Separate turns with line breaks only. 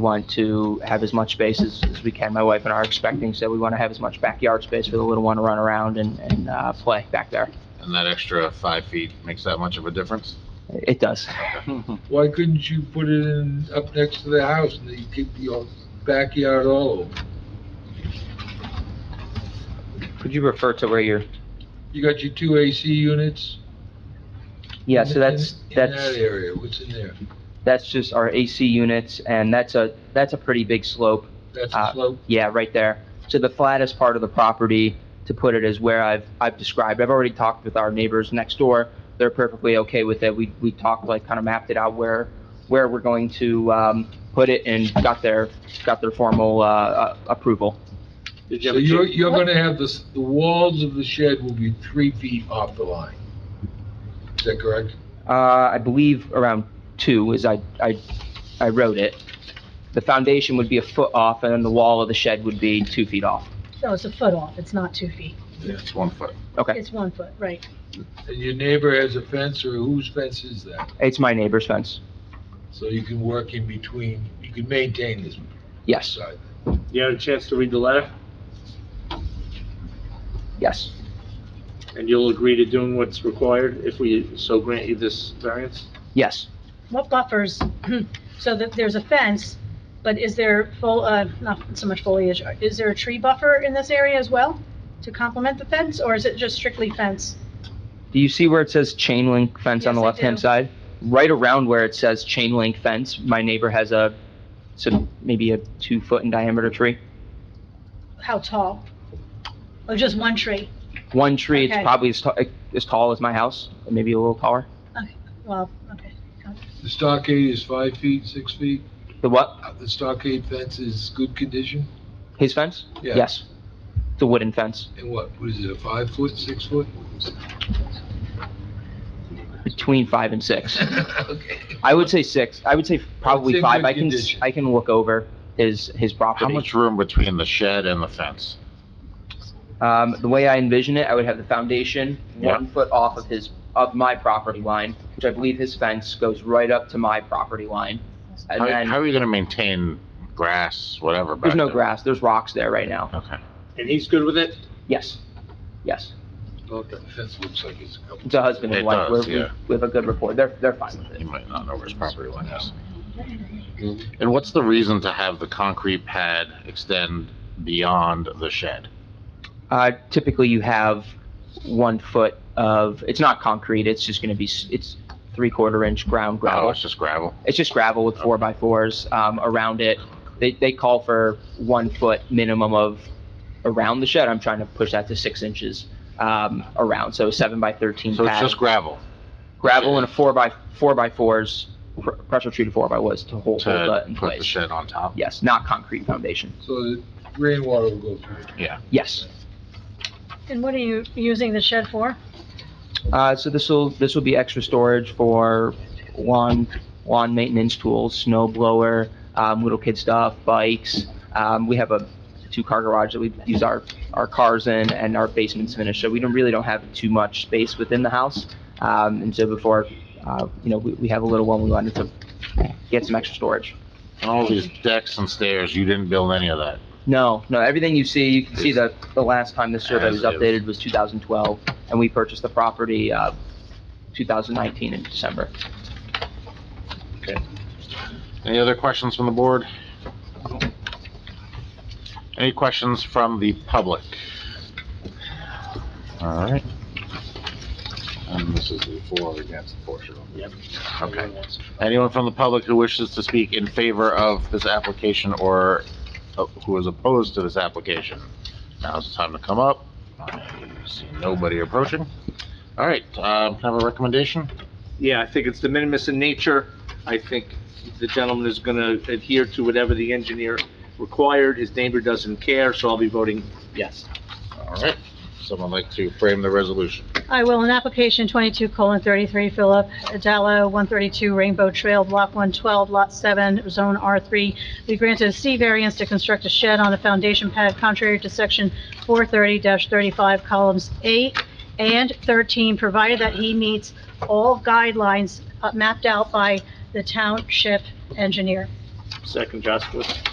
want to have as much space as, as we can. My wife and I are expecting, so we want to have as much backyard space for the little one to run around and, and, uh, play back there.
And that extra five feet makes that much of a difference?
It does.
Why couldn't you put it in up next to the house and you keep your backyard all over?
Could you refer to where you're?
You got your two AC units?
Yeah,
in-
so that's,
in- In
that's,
that area, what's in there?
that's just our AC units, and that's a, that's a pretty big slope.
That's
Uh,
a slope?
Yeah, right there. So the flattest part of the property, to put it, is where I've, I've described. I've already talked with our neighbors next door. They're perfectly okay with it. We, we talked, like, kind of mapped it out where, where we're going to, um, put it and got their, got their formal, uh, uh, approval.
Did you
So
have a
you're,
change,
you're gonna have this, the walls of the shed will be three feet off the line. Is that correct?
Uh, I believe around two is I, I, I wrote it. The foundation would be a foot off, and then the wall of the shed would be two feet off.
No, it's a foot off, it's not two feet.
It's one foot.
Okay,
It's one foot, right.
And your neighbor has a fence, or whose fence is that?
it's my neighbor's fence.
So you can work in between, you can maintain this
Yes,
side.
you had a chance to read the letter,
yes,
and you'll agree to doing what's required if we so grant you this variance?
yes.
What buffers, so that there's a fence, but is there full, uh, not so much foliage, is there a tree buffer in this area as well to complement the fence, or is it just strictly fence?
Do you see where it says chain link fence on the
Yes, I
left-hand
do.
side? Right around where it says chain link fence, my neighbor has a, so maybe a two-foot in diameter tree.
How tall? Or just one tree?
One tree, it's
Okay.
probably as, ta- as tall as my house, maybe a little taller.
Well, okay.
The stockade is five feet, six feet?
The what?
Uh, The stockade fence is good condition?
His fence?
Yeah.
Yes. The wooden fence,
And what, what is it, a five foot, six foot?
between five and six.
Okay.
I would say six. I would say
It's
probably
in
five.
good
I can, s-
condition.
I can look over his, his property.
How much room between the shed and the fence?
Um, the way I envision it, I would have the foundation
Yeah.
one foot off of his, of my property line, which I believe his fence goes right up to my property line. And
How, how
then,
are you gonna maintain grass, whatever? back
there's no
there?
grass, there's rocks there right now.
Okay.
And he's good with it?
Yes, yes.
Well, the fence looks like it's a couple.
It's a husband and
It
wife.
does,
We're- we-
yeah.
We have a good rapport. They're, they're fine with
You
it.
might not know where his property line is. And what's the reason to have the concrete pad extend beyond the shed?
Uh, typically you have one foot of, it's not concrete, it's just gonna be, s- it's three-quarter inch ground
Oh,
gravel.
it's just gravel?
It's just gravel with four by fours, um, around it. They, they call for one foot minimum of around the shed. I'm trying to push that to six inches, um, around, so seven by thirteen
So it's
pad.
just gravel
Gravel and a four by, four by fours, pr- pressure treated four by ones to hold, hold
to
that in
put the
place.
shed on top?
Yes, not concrete foundation.
So the rainwater will go through.
Yes.
And what are you using the shed for?
Uh, so this will, this will be extra storage for lawn, lawn maintenance tools, snow blower, um, little kid stuff, bikes. Um, we have a two-car garage that we use our, our cars in and our basement's finished, so we don't, really don't have too much space within the house. Um, and so before, uh, you know, we, we have a little one, we wanted to get some extra storage.
And all these decks and stairs, you didn't build any of that?
No, no, everything you see, you can see that the last time this survey was
As is.
updated was 2012, and we purchased the property, uh, 2019 in December.
Any other questions from the board? Any questions from the public? All right. And this is the for or against the portion.
Yep.
Okay. Anyone from the public who wishes to speak in favor of this application or uh, who is opposed to this application? Now's the time to come up. I See nobody approaching. All right, um, can I have a recommendation?
Yeah, I think it's de minimis in nature. I think the gentleman is gonna adhere to whatever the engineer required. His neighbor doesn't care, so I'll be voting yes.
All right, someone like to frame the resolution?
I will, in application twenty-two colon thirty-three, Philip Adello, one thirty-two Rainbow Trail, block one twelve, lot seven, zone R three. We granted a C variance to construct a shed on a foundation pad contrary to section four thirty thirty-five, columns eight and thirteen, provided that he meets all guidelines uh, mapped out by the township engineer.
Second, Jaskowitz.